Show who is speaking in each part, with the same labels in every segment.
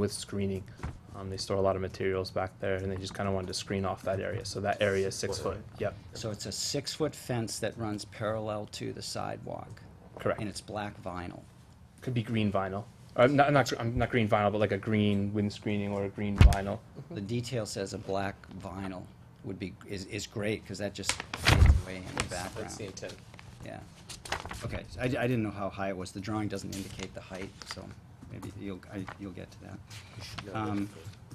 Speaker 1: with screening. Um, they store a lot of materials back there, and they just kind of wanted to screen off that area. So that area is six foot. Yep,
Speaker 2: So it's a six-foot fence that runs parallel to the sidewalk,
Speaker 1: correct.
Speaker 2: and it's black vinyl.
Speaker 1: Could be green vinyl. Uh, not, not, gr- um, not green vinyl, but like a green wind screening or a green vinyl.
Speaker 2: The detail says a black vinyl would be, is, is great, because that just fades away in the
Speaker 1: That's the
Speaker 2: background,
Speaker 1: intent.
Speaker 2: yeah. Okay, so I, I didn't know how high it was, the drawing doesn't indicate the height, so maybe you'll, I, you'll get to that. Um,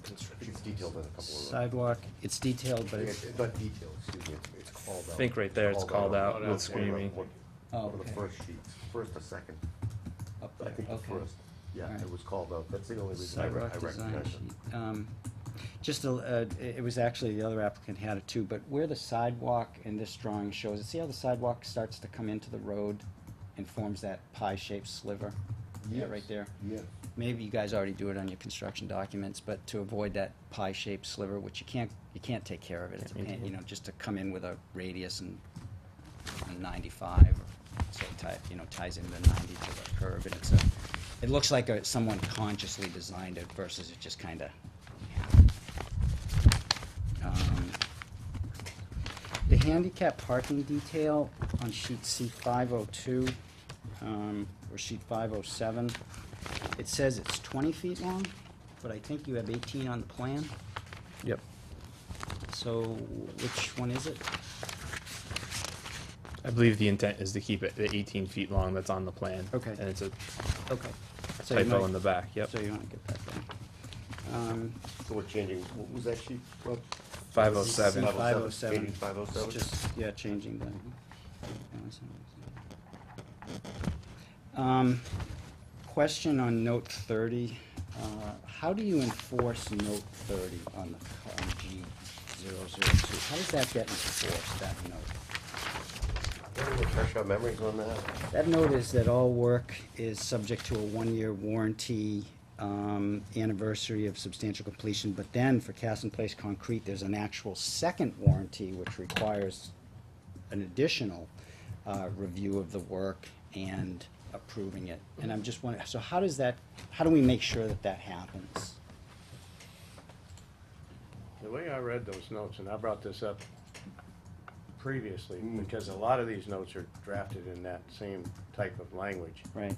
Speaker 3: It's detailed in a couple of.
Speaker 2: Sidewalk, it's detailed, but it's,
Speaker 3: It's not detailed, excuse me, it's- it's called out.
Speaker 1: I think right there it's called out
Speaker 3: on
Speaker 1: with screening.
Speaker 3: one-
Speaker 2: Oh,
Speaker 3: One of the
Speaker 2: okay.
Speaker 3: first sheets, first or second,
Speaker 2: up
Speaker 3: I
Speaker 2: there,
Speaker 3: think the
Speaker 2: okay.
Speaker 3: first, yeah,
Speaker 2: Alright.
Speaker 3: it was called out, that's the only reason I re- I
Speaker 2: Sidewalk design
Speaker 3: recognize it.
Speaker 2: sheet. Um, Just, a l- uh, it it was actually, the other applicant had it too, but where the sidewalk in this drawing shows, see how the sidewalk starts to come into the road and forms that pie-shaped sliver? Yeah,
Speaker 3: Yes,
Speaker 2: right there.
Speaker 3: Yeah,
Speaker 2: Maybe you guys already do it on your construction documents, but to avoid that pie-shaped sliver, which you can't, you can't take care of it, it's a
Speaker 1: Can't
Speaker 2: pain,
Speaker 1: maintain.
Speaker 2: you know, just to come in with a radius and and ninety-five, or so type, you know, ties into the ninety to the curve, and it's a, it looks like a, someone consciously designed it versus it just kinda happened. Um, The handicap parking detail on sheet C five oh two, um, or sheet five oh seven, it says it's twenty feet long, but I think you have eighteen on the plan,
Speaker 1: Yep.
Speaker 2: so which one is it?
Speaker 1: I believe the intent is to keep it at 18 feet long. That's on the plan.
Speaker 2: Okay.
Speaker 1: And it's a
Speaker 2: Okay. So you
Speaker 1: typo
Speaker 2: might-
Speaker 1: in the back. Yep.
Speaker 2: So you want to get that down. Um,
Speaker 3: so we're changing, what was that sheet, Rob?
Speaker 1: 507.
Speaker 2: C Five oh seven.
Speaker 3: Eighty five oh seven?
Speaker 2: Just, yeah, changing the. Um, question on note thirty, uh, how do you enforce note thirty on the, c- on G zero zero two? How does that get enforced, that note?
Speaker 3: Can we refresh our memories on that?
Speaker 2: That note is that all work is subject to a one-year warranty, um, anniversary of substantial completion, but then for cast-in-place concrete, there's an actual second warranty which requires an additional, uh, review of the work and approving it. And I'm just wondering, so how does that, how do we make sure that that happens?
Speaker 4: The way I read those notes, and I brought this up previously, because a lot of these notes are drafted in that same type of language.
Speaker 2: Right,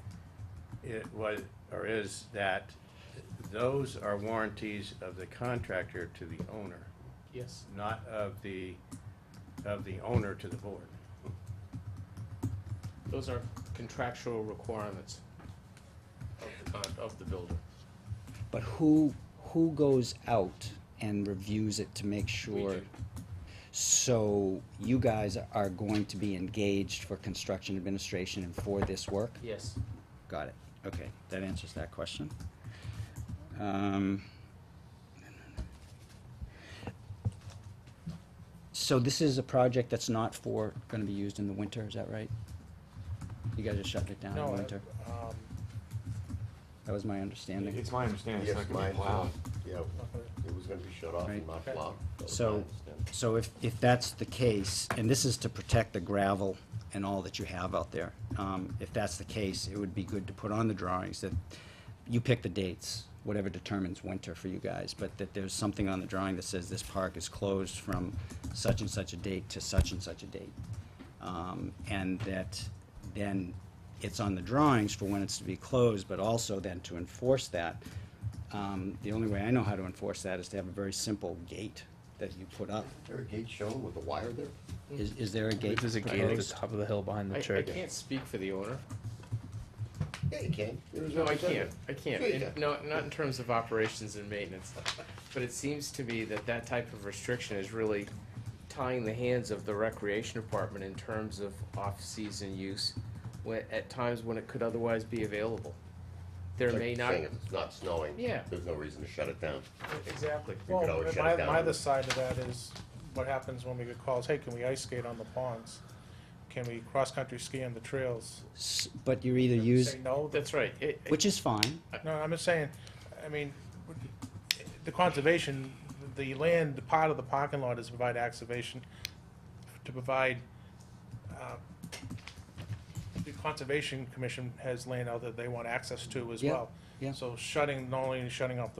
Speaker 4: It was, or is that those are warranties of the contractor to the owner,
Speaker 1: Yes.
Speaker 4: not of the, of the owner to the board.
Speaker 5: Those are contractual requirements of the con, of the builder.
Speaker 2: but who, who goes out and reviews it to make sure?
Speaker 5: do.
Speaker 2: So you guys are going to be engaged for construction administration and for this work?
Speaker 5: Yes.
Speaker 2: Got it. Okay, that answers that question. Um, So this is a project that's not for, gonna be used in the winter, is that right? You guys are shutting it down in the winter? That was my understanding.
Speaker 6: It's my understanding it's
Speaker 3: Yes,
Speaker 6: not gonna
Speaker 3: mine,
Speaker 6: be plowed.
Speaker 3: yeah, it was gonna be shut off
Speaker 2: Right.
Speaker 3: and not plowed. That was my
Speaker 2: So,
Speaker 3: understanding.
Speaker 2: so if, if that's the case, and this is to protect the gravel and all that you have out there, um, if that's the case, it would be good to put on the drawings that you pick the dates, whatever determines winter for you guys, but that there's something on the drawing that says this park is closed from such and such a date to such and such a date. Um, and that then it's on the drawings for when it's to be closed, but also then to enforce that, um, the only way I know how to enforce that is to have a very simple gate that you put up.
Speaker 3: Is There a gate shown with a wire there?
Speaker 2: Is, is there a gate?
Speaker 1: There's a gate at the
Speaker 2: proposed?
Speaker 1: top of the hill behind
Speaker 5: I,
Speaker 1: the
Speaker 5: I
Speaker 1: church.
Speaker 5: can't speak for the owner.
Speaker 3: Yeah, you can. There is
Speaker 5: No,
Speaker 3: one
Speaker 5: I
Speaker 3: there.
Speaker 5: can't, I can't,
Speaker 3: Sure you
Speaker 5: In-
Speaker 3: can.
Speaker 5: no, not in terms of operations and maintenance. But it seems to me that that type of restriction is really tying the hands of the recreation department in terms of off-season use, when, at times when it could otherwise be available. There
Speaker 3: Like
Speaker 5: may
Speaker 3: you're
Speaker 5: not,
Speaker 3: saying, if It's not snowing.
Speaker 5: Yeah.
Speaker 3: There's no reason to shut it down.
Speaker 7: Exactly.
Speaker 3: could
Speaker 7: Well,
Speaker 3: always shut
Speaker 7: my,
Speaker 3: it down.
Speaker 7: my other side of that is what happens when we get calls, hey, can we ice skate on the ponds? Can we cross-country ski on the trails?
Speaker 2: S- But you're either
Speaker 7: They
Speaker 2: use,
Speaker 7: Say no,
Speaker 5: that's right, it, it-
Speaker 2: which is fine,
Speaker 7: no, I'm just saying, I mean, the conservation, the land, the part of the parking lot is provide excavation, to provide, uh, the Conservation Commission has land out that they want access to as
Speaker 2: Yeah,
Speaker 7: well.
Speaker 2: yeah.
Speaker 7: So shutting, not only shutting off the